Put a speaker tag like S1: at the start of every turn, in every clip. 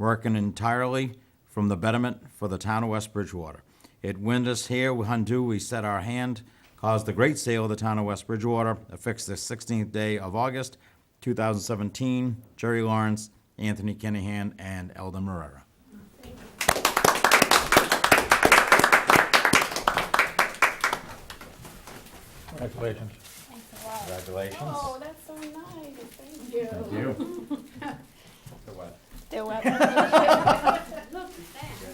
S1: working entirely from the betterment for the town of West Bridgewater. It wind us here, undo, we set our hand, caused the great sale of the town of West Bridgewater, affixed the 16th day of August, 2017, Jerry Lawrence, Anthony Kennehan, and Eldon Marrera.
S2: Congratulations.
S3: Thanks a lot.
S1: Congratulations.
S3: Oh, that's so nice, thank you.
S1: You.
S3: They're welcome. Look at that, thank you,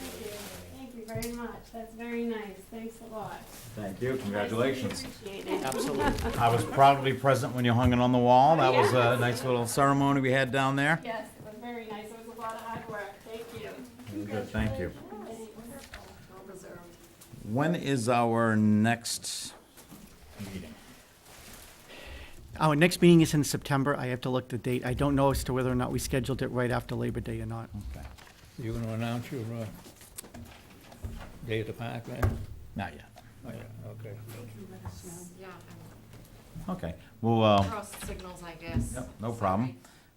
S3: thank you very much, that's very nice, thanks a lot.
S1: Thank you,
S3: I
S1: congratulations.
S3: really Appreciate it.
S4: Absolutely.
S1: I was proudly present when you hung it on the wall. That was a nice little ceremony we had down there.
S3: Yes, it was very nice, it was a lot of hard work, thank you.
S1: Good, thank you.
S3: Thanks.
S4: Well deserved.
S1: When is our next meeting?
S5: Our Oh, next meeting is in September. I have to look the date. I don't know as to whether or not we scheduled it right after Labor Day or not.
S1: Okay,
S2: You gonna announce your, uh, day at the park then?
S1: Not yet.
S2: Oh, Okay.
S4: Yeah,
S1: Okay, well, uh,
S4: cross signals, I guess.
S1: Yep, no problem.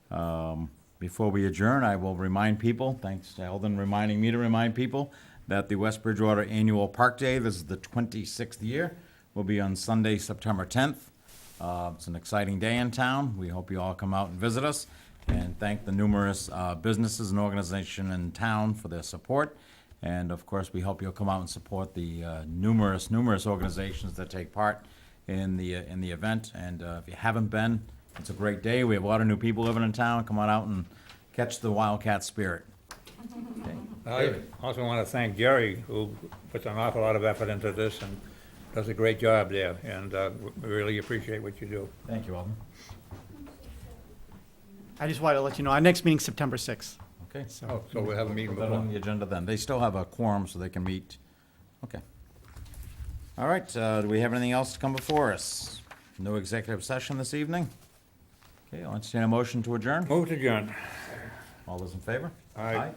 S1: um, before we adjourn, I will remind people, thanks to Eldon reminding me to remind people, that the West Bridgewater Annual Park Day, this is the 26th year, will be on Sunday, September 10th. Uh, It's an exciting day in town. We hope you all come out and visit us and thank the numerous uh, businesses and organizations in town for their support. And of course, we hope you'll come out and support the uh, numerous, numerous organizations that take part in the, uh, in the event. And uh, if you haven't been, it's a great day. We have a lot of new people living in town. Come on out and catch the Wildcat spirit.
S2: I also wanna thank Jerry, who puts an awful lot of effort into this and does a great job there, and, uh, we really appreciate what you do.
S1: Thank you, Alden.
S5: I just wanted to let you know, our next meeting's September 6th.
S1: Okay.
S2: Oh, so we'll have a meeting
S1: Put that on the
S2: before.
S1: agenda then. They still have a quorum, so they can meet. Okay. All right, uh, do we have anything else to come before us? No executive session this evening? Okay, I'll entertain a motion to adjourn.
S2: Move to adjourn.
S1: All those in favor?
S2: Aye.